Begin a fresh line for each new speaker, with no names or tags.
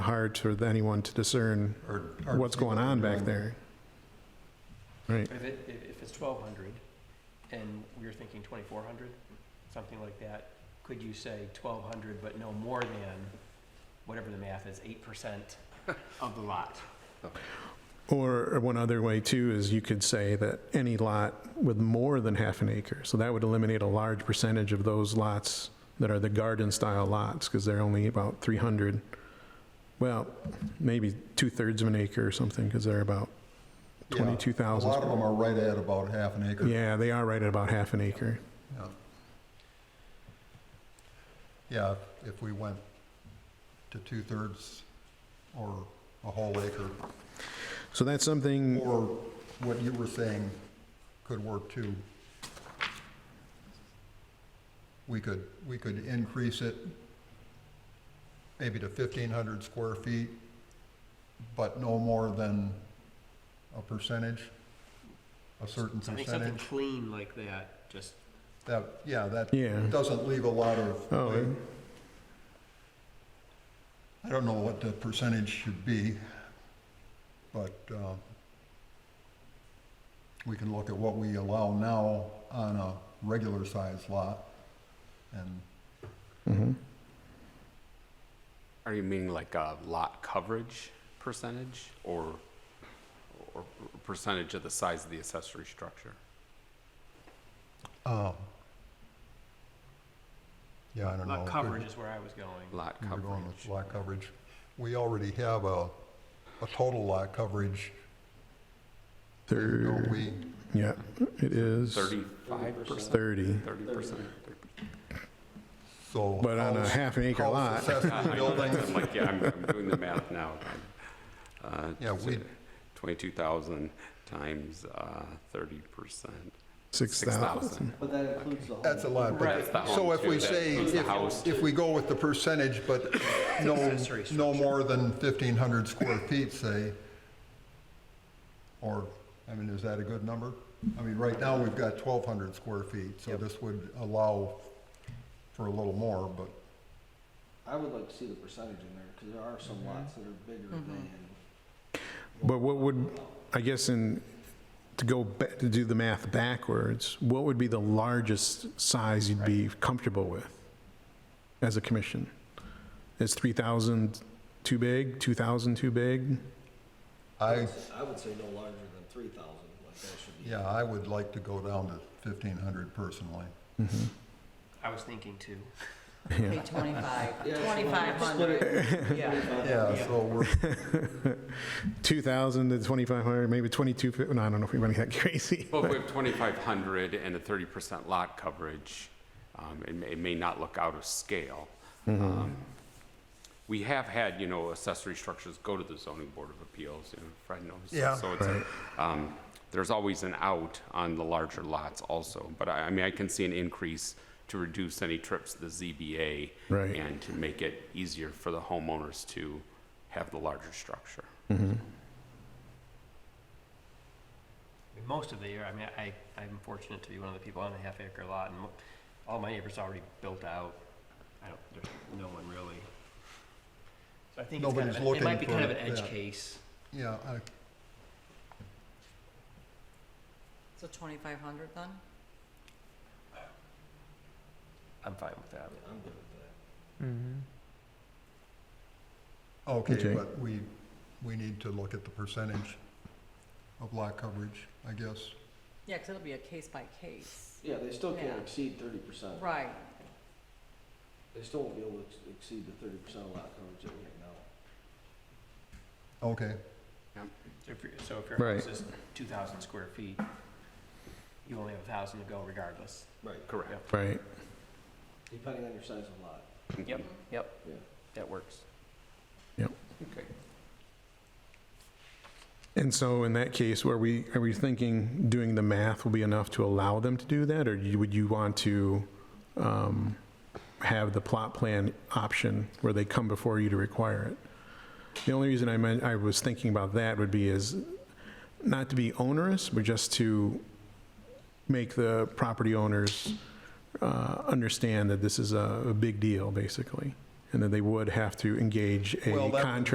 hard for anyone to discern
or- or
what's going on back there. Right,
If it, if if it's twelve hundred, and we were thinking twenty-four hundred, something like that, could you say twelve hundred but no more than, whatever the math is, eight percent of the lot?
or or one other way too is you could say that any lot with more than half an acre, so that would eliminate a large percentage of those lots that are the garden-style lots, because they're only about 300, well, maybe two-thirds of an acre or something, because they're about
Yeah.
22,000.
A lot of them are right at about half an acre.
Yeah, they are right at about half an acre.
Yeah. Yeah, if we went to two-thirds or a whole acre,
So that's something,
or what you were saying could work too. We could, we could increase it maybe to fifteen hundred square feet, but no more than a percentage, a certain
I think something
percentage.
clean like that, just,
That, yeah, that
Yeah.
doesn't leave a lot of.
Oh, it-
I don't know what the percentage should be, but uh, we can look at what we allow now on a regular sized lot. And
Are you meaning like a lot coverage percentage or, or percentage of the size of the accessory structure?
um, yeah, I don't know.
lot
Could-
coverage is where I was going.
Lot
We're going with
coverage.
lot coverage. We already have a, a total lot coverage,
third,
don't we?
yeah, it is
Thirty-five percent,
30.
thirty percent.
So.
But on a
house-
half an acre
house
lot.
Accessory buildings,
I'm like, yeah, I'm, I'm doing the math now. Uh,
Yeah, we-
Twenty-two thousand times, uh, thirty percent.
6,000.
But that includes the whole.
That's a lot,
Right.
but, so if we
That's the
say,
home too, that includes the house.
if, if we go with the percentage, but no,
Accessory
no
structure.
more than 1,500 square feet, say, or, I mean, is that a good number? I mean, right now, we've got 1,200 square feet, so this would allow for a little more, but,
I would like to see the percentage in there, because there are some lots that are bigger
Mm-hmm.
than,
But what would, I guess in, to go, ba- to do the math backwards, what would be the largest size you'd be comfortable with as a commission? Is 3,000 too big, 2,000 too big?
I,
I would say no larger than three thousand, like that should be.
yeah, I would like to go down to 1,500 personally.
I was thinking too.
Pay 25, 2,500.
Yeah, so we're,
2,000 to 2,500, maybe 2,250, no, I don't know if we went that crazy.
Well, if we have 2,500 and a 30% lot coverage, um, it may- it may not look out of scale. Um, We have had, you know, accessory structures go to the zoning board of appeals, you know, Fred knows.
Yeah.
So it's, a- um, there's always an out on the larger lots also. But I I mean, I can see an increase to reduce any trips to the ZBA.
Right.
And to make it easier for the homeowners to have the larger structure.
I mean, Most of the year, I mean, I, I'm fortunate to be one of the people on the half acre lot, and mo- all my neighbors are already built out. I don't, there's no one really. So I think it's kind
Nobody's
of, an- it might
looking
be
for
kind of an
it,
edge
yeah.
case.
yeah, I,
So 2,500 then?
I'm fine with that.
I'm good with that.
okay,
Okay.
but we, we need to look at the percentage of lot coverage, I guess.
Yeah, because it'll be a case by case.
Yeah, they still can't
Yeah.
exceed thirty percent.
Right.
They still won't be able to ex- exceed the thirty percent lot coverage that we have now.
Okay,
So if, your- so if your
Right.
house is two thousand square feet, you only have a thousand to go regardless.
Right.
Correct.
Right.
Depending on your size of lot,
Yep, yep,
yeah.
that works.
Okay.
And so in that case, were we, are we thinking doing the math will be enough to allow them to do that? Or you- would you want to um, have the plot plan option where they come before you to require it? The only reason I meant, I was thinking about that would be is not to be onerous, but just to make the property owners uh, understand that this is a a big deal, basically, and that they would have to engage a
Well, that-
contractor